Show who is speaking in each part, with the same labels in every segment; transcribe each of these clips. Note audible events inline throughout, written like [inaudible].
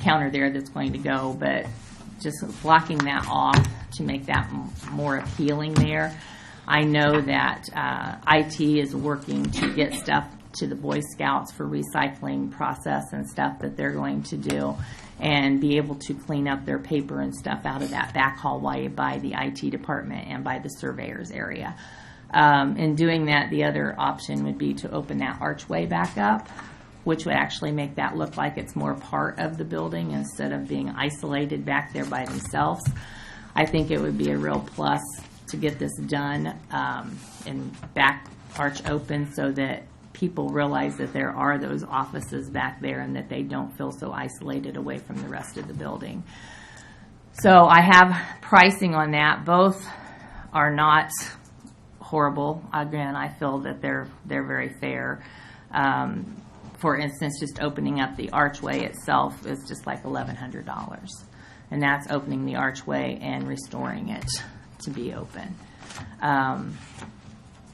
Speaker 1: counter there that's going to go, but just blocking that off to make that m- more appealing there. I know that uh, IT is working to get stuff to the Boy Scouts for recycling process and stuff that they're going to do and be able to clean up their paper and stuff out of that back hallway by the IT department and by the surveyors area. Um, in doing that, the other option would be to open that archway back up, which would actually make that look like it's more part of the building instead of being isolated back there by themselves. I think it would be a real plus to get this done um, and back arch open so that people realize that there are those offices back there and that they don't feel so isolated away from the rest of the building. So I have pricing on that. Both are not horrible. Again, I feel that they're, they're very fair. Um, For instance, just opening up the archway itself is just like eleven hundred dollars. And that's opening the archway and restoring it to be open. Um,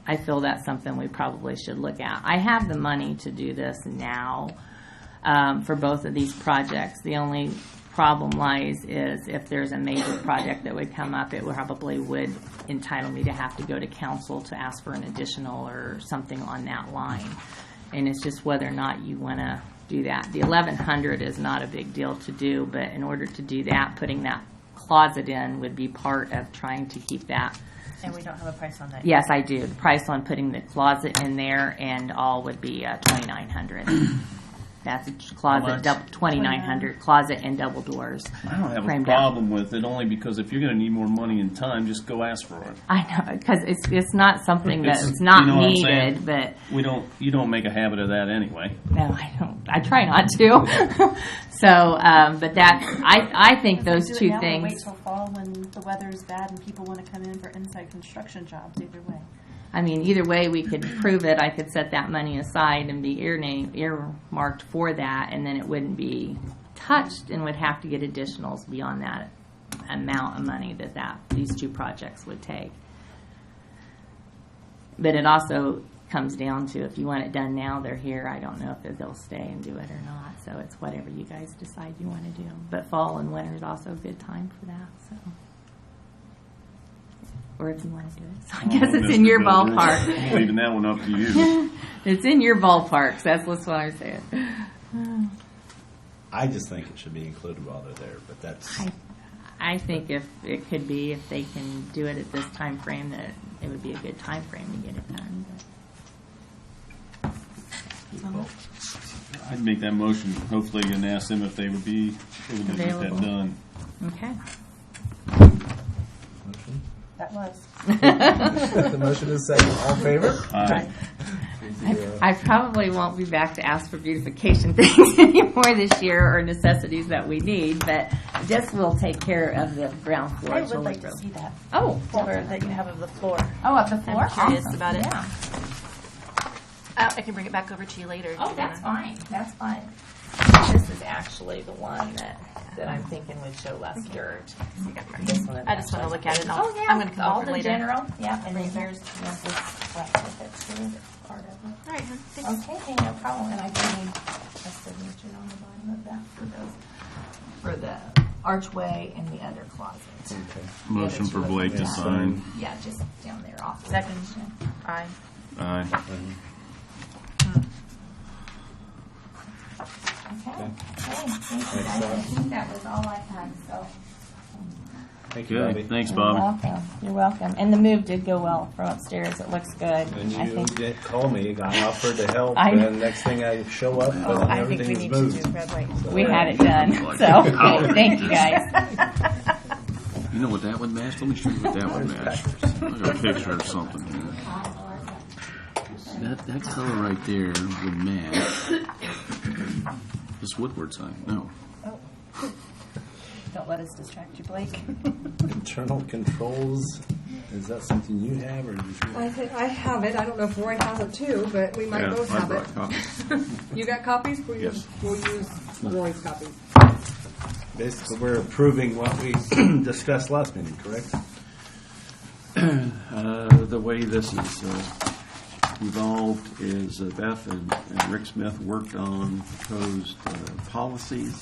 Speaker 1: I feel that's something we probably should look at. I have the money to do this now um, for both of these projects. The only problem lies is if there's a major project that would come up, it would probably would entitle me to have to go to council to ask for an additional or something on that line. And it's just whether or not you want to do that. The eleven hundred is not a big deal to do, but in order to do that, putting that closet in would be part of trying to keep that
Speaker 2: And we don't have a price on that.
Speaker 1: Yes, I do. The price on putting the closet in there and all would be uh, twenty-nine hundred. That's a closet,
Speaker 3: Hmm. much?
Speaker 1: twenty-nine hundred, closet and double doors.
Speaker 3: I don't have a
Speaker 1: framed out.
Speaker 3: problem with it only because if you're going to need more money and time, just go ask for it.
Speaker 1: I know, because it's, it's not something
Speaker 3: It's-
Speaker 1: that's not
Speaker 3: you know what I'm saying?
Speaker 1: needed, but,
Speaker 3: We don't. You don't make a habit of that anyway.
Speaker 1: no, I don't, I try not to. [laughs] So, um, but that, I, I think those
Speaker 2: Do it
Speaker 1: two
Speaker 2: now or
Speaker 1: things.
Speaker 2: Wait till fall when the weather is bad and people want to come in for inside construction jobs, either way.
Speaker 1: I mean, either way, we could prove it. I could set that money aside and be ear name, earmarked for that, and then it wouldn't be touched and would have to get additionals beyond that amount of money that that, these two projects would take. But it also comes down to if you want it done now, they're here. I don't know if they'll stay and do it or not, so it's whatever you guys decide you want to do. But fall and winter is also a good time for that, so. Or if you want to do it. So
Speaker 3: Oh,
Speaker 1: I guess it's in your ballpark.
Speaker 3: I'm Leaving that one up to you.
Speaker 1: [laughs] It's in your ballpark. So that's what's why I say it.
Speaker 4: I just think it should be included while they're there, but that's
Speaker 1: I, I think if it could be, if they can do it at this time frame, that it would be a good time frame to get it done.
Speaker 3: I'd make that motion, hopefully, and ask them if they would be able to get that
Speaker 1: Available.
Speaker 3: done.
Speaker 1: Okay.
Speaker 4: motion.
Speaker 2: That was.
Speaker 4: the motion is second. All in favor?
Speaker 3: Aye.
Speaker 1: I probably won't be back to ask for beautification [laughs] things anymore this year or necessities that we need, but this will take care of the ground floor.
Speaker 2: I would
Speaker 1: Julie
Speaker 2: like to
Speaker 1: Grove.
Speaker 2: see that
Speaker 1: Oh,
Speaker 2: cover that you have of the floor.
Speaker 1: oh, up the floor.
Speaker 2: I'm curious about it.
Speaker 1: Yeah.
Speaker 2: Uh, I can bring it back over to you later. if
Speaker 1: Oh,
Speaker 2: you
Speaker 1: that's
Speaker 2: wanna.
Speaker 1: fine, that's fine. This is actually the one that, that I'm thinking would show less dirt. This one is
Speaker 2: I just want
Speaker 1: actually-
Speaker 2: to look at it. and I'll-
Speaker 1: Oh, yeah.
Speaker 2: I'm going to come
Speaker 1: all
Speaker 2: over
Speaker 1: the
Speaker 2: later.
Speaker 1: general, yeah, and then there's, there's this black bit that's here that's part of it.
Speaker 2: All right, hun, thanks.
Speaker 1: Okay, hey, no problem, and I do need a signature on the bottom of that for those, for the archway and the other closet.
Speaker 3: Motion for Blake to sign.
Speaker 1: Yeah, just down there off.
Speaker 2: Second. Aye.
Speaker 3: Aye.
Speaker 1: Okay, okay, thank you guys, I think that was all I had, so.
Speaker 4: Thank you, Bobby.
Speaker 3: Good. Thanks,
Speaker 4: Um,
Speaker 3: Bobby.
Speaker 1: You're welcome. You're welcome. And the move did go well from upstairs. It looks good.
Speaker 4: And
Speaker 1: I
Speaker 4: you
Speaker 1: think.
Speaker 4: did call me. I offered to help,
Speaker 1: I-
Speaker 4: and next thing I show up,
Speaker 2: Oh,
Speaker 4: and
Speaker 2: I think we
Speaker 4: everything's
Speaker 2: need to
Speaker 4: moved.
Speaker 2: do red light.
Speaker 1: We had
Speaker 4: [laughs]
Speaker 1: it done, so [laughs] thank you guys.
Speaker 5: You know what that would match? Let me show you what that would match. I got a picture of something here. That, that color right there would match this Woodward sign. No.
Speaker 2: Don't let us distract you, Blake.
Speaker 4: Internal controls. Is that something you have, or did you?
Speaker 6: I think I have it. I don't know if Roy has it too, but we might both have it. You got copies? We'll use, we'll use Roy's copies.
Speaker 4: Basically, we're approving what we [clears throat] discussed last meeting, correct?
Speaker 7: Uh, The way this is uh, evolved is uh, Beth and and Rick Smith worked on proposed uh, policies